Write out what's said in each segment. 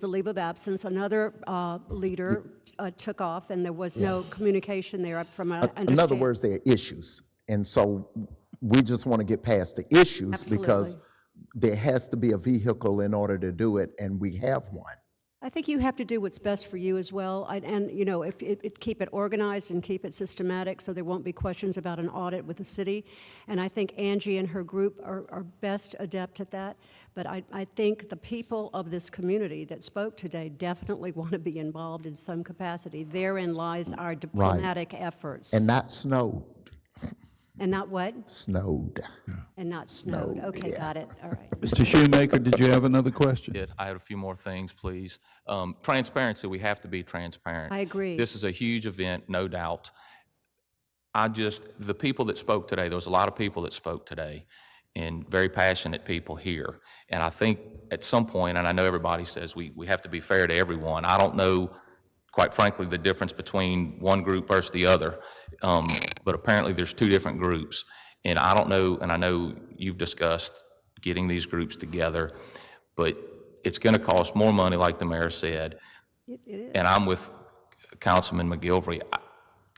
the leave of absence, another uh, leader uh, took off, and there was no communication there from what I In other understand. words, there are issues. And so we just want to get past the issues because Absolutely. there has to be a vehicle in order to do it, and we have one. I think you have to do what's best for you as well, I- and, you know, if, it- it- keep it organized and keep it systematic, so there won't be questions about an audit with the city. And I think Angie and her group are are best adept at that, but I, I think the people of this community that spoke today definitely want to be involved in some capacity. Therein lies our diplomatic efforts. And not snowed, And not what? snowed. And not snowed. Okay, got it, all right. Mr. Shoemaker, did you have another question? did. I had a few more things, please. Um, Transparency, we have to be transparent. I agree. This is a huge event, no doubt. I just, the people that spoke today, there was a lot of people that spoke today, and very passionate people here. And I think at some point, and I know everybody says we, we have to be fair to everyone, I don't know, quite frankly, the difference between one group versus the other, um, but apparently there's two different groups. And I don't know, and I know you've discussed getting these groups together, but it's going to cost more money, like the mayor said. And I'm with Councilman McGilvery. I-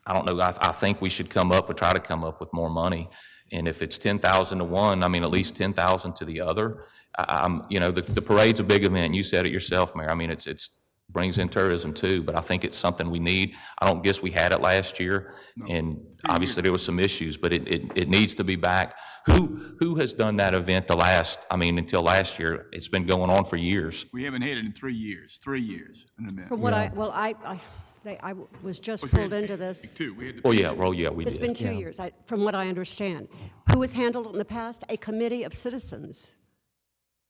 I don't know, I, I think we should come up, or try to come up with more money. And if it's 10,000 to one, I mean, at least 10,000 to the other. I, I'm, you know, the, the parade's a big event, you said it yourself, Mayor. I mean, it's, it's, brings in tourism too, but I think it's something we need. I don't guess we had it last year, and obviously there was some issues, but it, it, it needs to be back. Who, who has done that event the last, I mean, until last year? It's been going on for years. We haven't had it in three years, three years, in a minute. From what I, well, I, I, they, I was just We had pulled to into pick this. Two, we had to. Oh, yeah, well, yeah, we did. It's been two years, I, from what I understand. Who has handled it in the past? A committee of citizens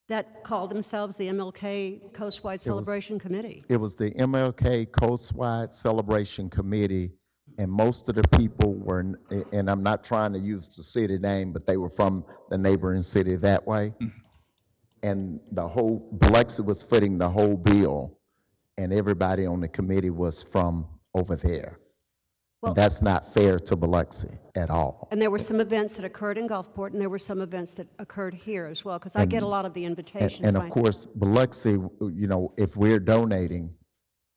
that called themselves the MLK Coastwide Celebration Committee. It was the MLK Coastwide Celebration Committee, and most of the people were, n- and I'm not trying to use the city name, but they were from the neighboring city that way. And the whole, Biloxi was footing the whole bill, and everybody on the committee was from over there. And that's not fair to Biloxi at all. And there were some events that occurred in Gulfport, and there were some events that occurred here as well, because I get a lot of the invitations And of myself. course, Biloxi, you know, if we're donating,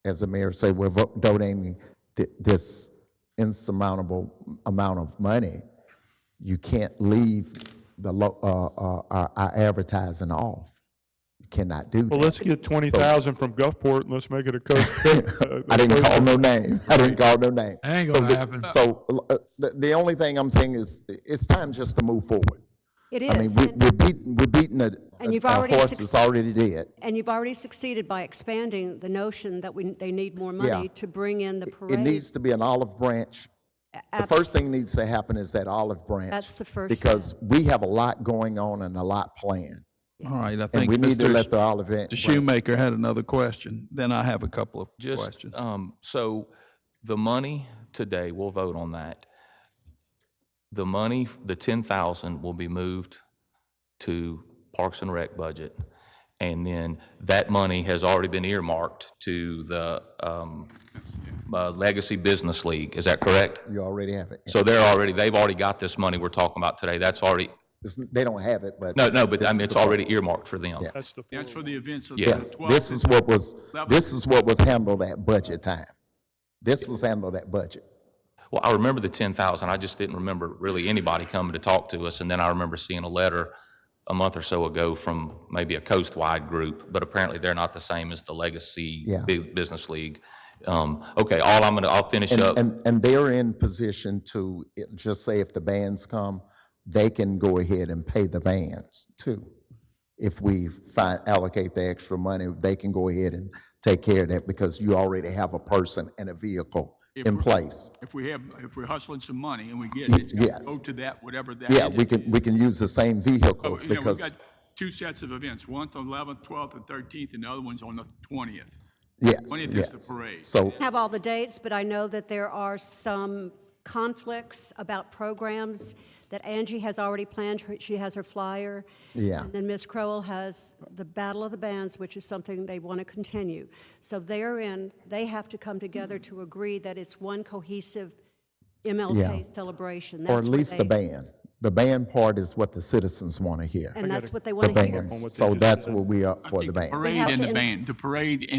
as the mayor said, we're vo- donating thi- this insurmountable amount of money, you can't leave the, lo- uh, uh, our our advertising off. You cannot do Well, that. let's get twenty thousand from Gulfport and let's make it a coast. I didn't call no name. I didn't call no name. Ain't So gonna the- happen. So uh, the, the only thing I'm saying is, it's time just to move forward. It I mean, is, we- and- we're beating, we're beating a And a you've a already horse suc- that's already dead. and you've already succeeded by expanding the notion that we, they need more money to bring in the It parade. needs to be an olive branch. The first thing needs to happen is that olive branch. That's the first step. Because we have a lot going on and a lot planned. All right, I And think we need to let the Mr. olive branch. Shoemaker had another question. Then I have a couple of Just, questions. um, so the money today, we'll vote on that. The money, the ten thousand will be moved to Parks and Rec budget. And then that money has already been earmarked to the, um, uh, Legacy Business League, is that correct? You already have it. So they're already, they've already got this money we're talking about today, that's already, It's- They don't have it, but. no, no, but I mean, it's already earmarked for them. That's the That's for the events of the Yes. 12th. This is what was, this is what was handled at budget time. This was handled at budget. Well, I remember the ten thousand, I just didn't remember really anybody coming to talk to us, and then I remember seeing a letter a month or so ago from maybe a coast-wide group, but apparently they're not the same as the Legacy Yeah. Bu- Business League. Um, okay, all I'm gonna, I'll finish up, And, and they're in position to, it- just say if the bands come, they can go ahead and pay the bands too. If we find, allocate the extra money, they can go ahead and take care of that because you already have a person and a vehicle in place. If we have, if we're hustling some money and we get it, it's got Yes. to go to that, whatever that. Yeah, we can, we can use the same vehicle So, You know, we've because, got two sets of events, one on 11th, 12th, and 13th, and the other one's on the 20th. yes, 20th is the yes. parade. So, have all the dates, but I know that there are some conflicts about programs that Angie has already planned. Her- She has her flyer. Yeah. And then Ms. Crowell has the Battle of the Bands, which is something they want to continue. So therein, they have to come together to agree that it's one cohesive Yeah. MLK celebration. or That's at where least the they- band. the band part is what the citizens want to hear, And that's what they the want to hear. bands. So that's what we are for the band. Parade have and to the in- band, the parade